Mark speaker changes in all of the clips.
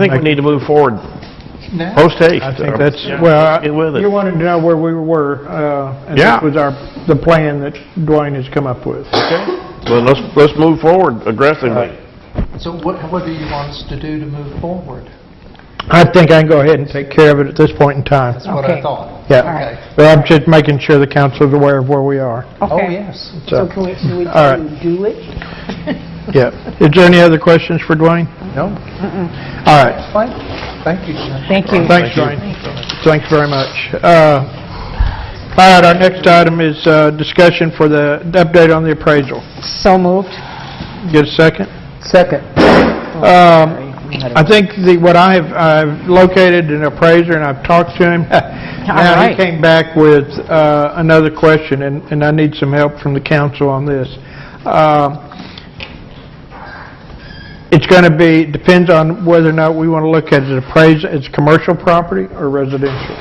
Speaker 1: I think we need to move forward
Speaker 2: Now?
Speaker 1: post haste.
Speaker 3: I think that's,
Speaker 1: Yeah,
Speaker 3: well,
Speaker 1: Get with
Speaker 3: you
Speaker 1: it.
Speaker 3: wanted to know where we were, uh, and
Speaker 1: Yeah.
Speaker 3: that was our, the plan that Dwayne has come up with.
Speaker 1: Well, let's, let's move forward aggressively.
Speaker 2: So what, what do you want us to do to move forward?
Speaker 3: I think I can go ahead and take care of it at this point in time.
Speaker 2: That's what I
Speaker 4: Okay.
Speaker 2: thought.
Speaker 3: Yeah,
Speaker 2: Okay.
Speaker 3: but I'm just making sure the council's aware of where we are.
Speaker 2: Oh,
Speaker 4: Okay.
Speaker 2: yes.
Speaker 4: So can we, should we
Speaker 3: All right.
Speaker 4: do it?
Speaker 3: Yeah. Is there any other questions for Dwayne?
Speaker 2: No,
Speaker 3: All right.
Speaker 2: fine. Thank you, Jim.
Speaker 4: Thank you.
Speaker 3: Thanks, Dwayne. Thanks very much. Uh, All right, our next item is uh, discussion for the the update on the appraisal.
Speaker 4: So moved.
Speaker 3: Get a second?
Speaker 4: Second. Oh,
Speaker 3: Um, I think the, what I have, I've located an appraiser and I've talked to him. Now, he
Speaker 4: right.
Speaker 3: came back with uh, another question, and and I need some help from the council on this. Um, It's going to be, depends on whether or not we want to look at it appraised as commercial property or residential.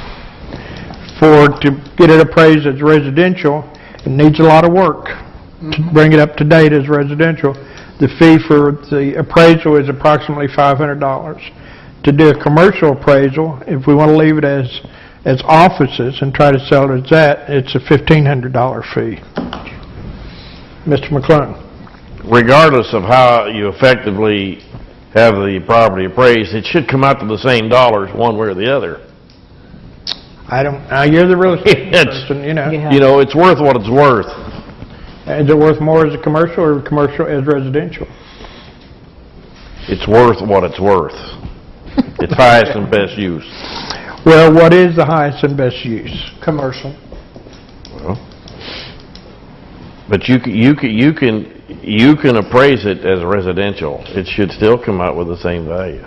Speaker 3: For, to get it appraised as residential, it needs a lot of work to bring it up to date as residential. The fee for the appraisal is approximately $500. To do a commercial appraisal, if we want to leave it as, as offices and try to sell it as that, it's a $1,500 fee. Mr. McClung?
Speaker 1: Regardless of how you effectively have the property appraised, it should come out to the same dollars one way or the other.
Speaker 3: I don't, now, you're the real estate
Speaker 1: It's-
Speaker 3: person, you know.
Speaker 4: Yeah.
Speaker 1: You know, it's worth what it's worth.
Speaker 3: Is it worth more as a commercial or commercial as residential?
Speaker 1: It's worth what it's worth. It's highest and best use.
Speaker 3: Well, what is the highest and best use?
Speaker 2: Commercial.
Speaker 1: But you, c- you, c- you can, you can appraise it as residential. It should still come out with the same value.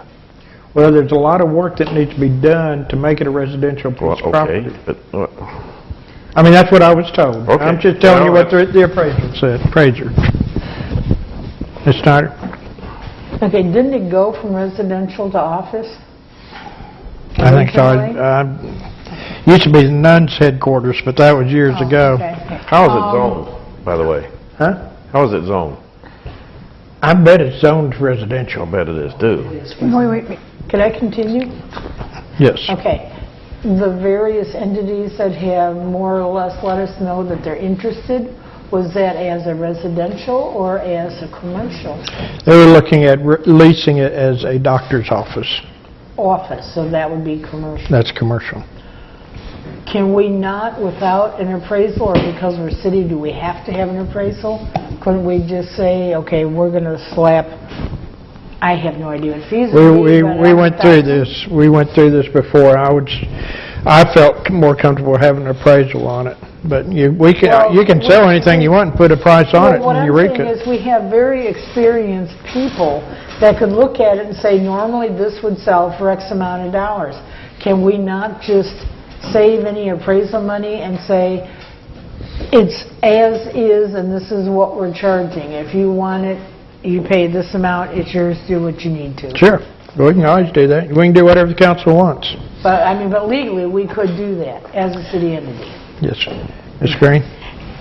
Speaker 3: Well, there's a lot of work that needs to be done to make it a residential
Speaker 1: Well,
Speaker 3: piece of
Speaker 1: okay,
Speaker 3: property.
Speaker 1: but, uh,
Speaker 3: I mean, that's what I was told.
Speaker 1: Okay.
Speaker 3: I'm just telling you
Speaker 1: Well,
Speaker 3: what the the appraiser said, appraiser. Ms. Snyder?
Speaker 5: Okay, didn't it go from residential to office?
Speaker 3: I think so.
Speaker 5: Originally?
Speaker 3: Um, Used to be the nuns headquarters, but that was years
Speaker 5: Oh,
Speaker 3: ago.
Speaker 4: Okay.
Speaker 1: How is it zoned, by the way?
Speaker 3: Huh?
Speaker 1: How is it zoned?
Speaker 3: I bet it's zoned residential.
Speaker 1: I bet it is too.
Speaker 4: Wait, wait, wait.
Speaker 5: Could I continue?
Speaker 3: Yes.
Speaker 5: Okay. The various entities that have more or less let us know that they're interested, was that as a residential or as a commercial
Speaker 3: They were looking at re- leasing it as a doctor's office.
Speaker 5: office? So that would be commercial.
Speaker 3: That's commercial.
Speaker 5: Can we not, without an appraisal, or because we're city, do we have to have an appraisal? Couldn't we just say, okay, we're going to slap, I have no idea what fees
Speaker 3: We,
Speaker 5: would
Speaker 3: we,
Speaker 5: be, but
Speaker 3: we
Speaker 5: I'm
Speaker 3: went through
Speaker 5: thousand.
Speaker 3: this, we went through this before. I would, s- I felt more comfortable having an appraisal on it. But you, we can,
Speaker 5: Well,
Speaker 3: you can sell
Speaker 5: we-
Speaker 3: anything you want and put a price on it
Speaker 5: Well,
Speaker 3: and you reek
Speaker 5: What I'm saying
Speaker 3: it.
Speaker 5: is, we have very experienced people that could look at it and say, normally this would sell for X amount of dollars. Can we not just save any appraisal money and say, it's as is and this is what we're charging? If you want it, you pay this amount, it's yours, do what you need to.
Speaker 3: Sure, we can always do that. We can do whatever the council wants.
Speaker 5: But, I mean, but legally, we could do that as a city entity.
Speaker 3: Yes. Ms. Green?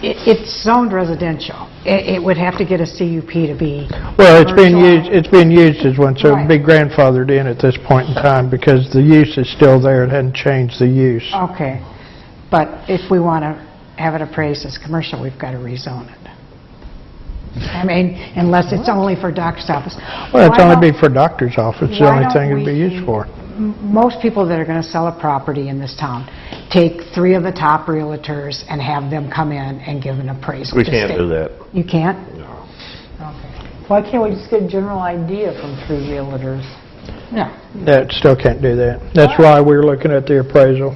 Speaker 4: It- It's zoned residential. It it would have to get a CUP to be,
Speaker 3: Well, it's been
Speaker 4: Commercial.
Speaker 3: used, it's been used as one, so it'd
Speaker 4: Right.
Speaker 3: be grandfathered in at this point in time because the use is still there. It hadn't changed the use.
Speaker 4: okay. But if we want to have it appraised as commercial, we've got to rezone it. I mean, unless it's only for doctor's office.
Speaker 3: Well, it's
Speaker 4: Why
Speaker 3: only
Speaker 4: don't-
Speaker 3: be for doctor's office, the
Speaker 4: why
Speaker 3: only
Speaker 4: don't
Speaker 3: thing it'd
Speaker 4: we-
Speaker 3: be used for.
Speaker 4: m- most people that are going to sell a property in this town, take three of the top realtors and have them come in and give an appraisal.
Speaker 1: We
Speaker 4: to
Speaker 1: can't
Speaker 4: state-
Speaker 1: do that.
Speaker 4: You can't?
Speaker 5: Why can't we just get a general idea from three realtors?
Speaker 4: No.
Speaker 3: That, still can't do that. That's why we're looking at the appraisal,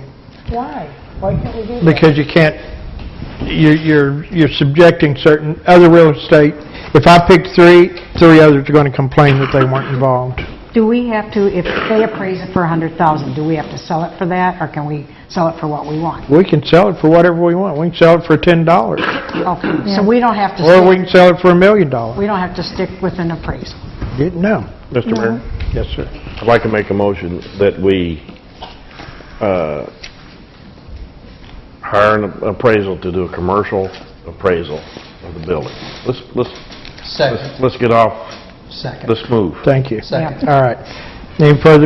Speaker 5: Why? Why can't we do that?
Speaker 3: because you can't, you're, you're you're subjecting certain, other real estate, if I pick three, three others are going to complain that they weren't involved.
Speaker 4: Do we have to, if they appraise it for 100,000, do we have to sell it for that, or can we sell it for what we want?
Speaker 3: We can sell it for whatever we want, we can sell it for $10,
Speaker 4: Okay, so we don't have to,
Speaker 3: or we
Speaker 4: stick-
Speaker 3: can sell it for a million dollars.
Speaker 4: we don't have to stick with an appraisal.
Speaker 3: No.
Speaker 1: Mr. Mayor?
Speaker 3: Yes, sir.
Speaker 1: I'd like to make a motion that we uh, hire an appraisal to do a commercial appraisal of the building. Let's, let's,
Speaker 2: Second,
Speaker 1: let's- let's get off,
Speaker 2: second,
Speaker 1: let's move.
Speaker 3: Thank you.
Speaker 2: second.
Speaker 3: All right. Any further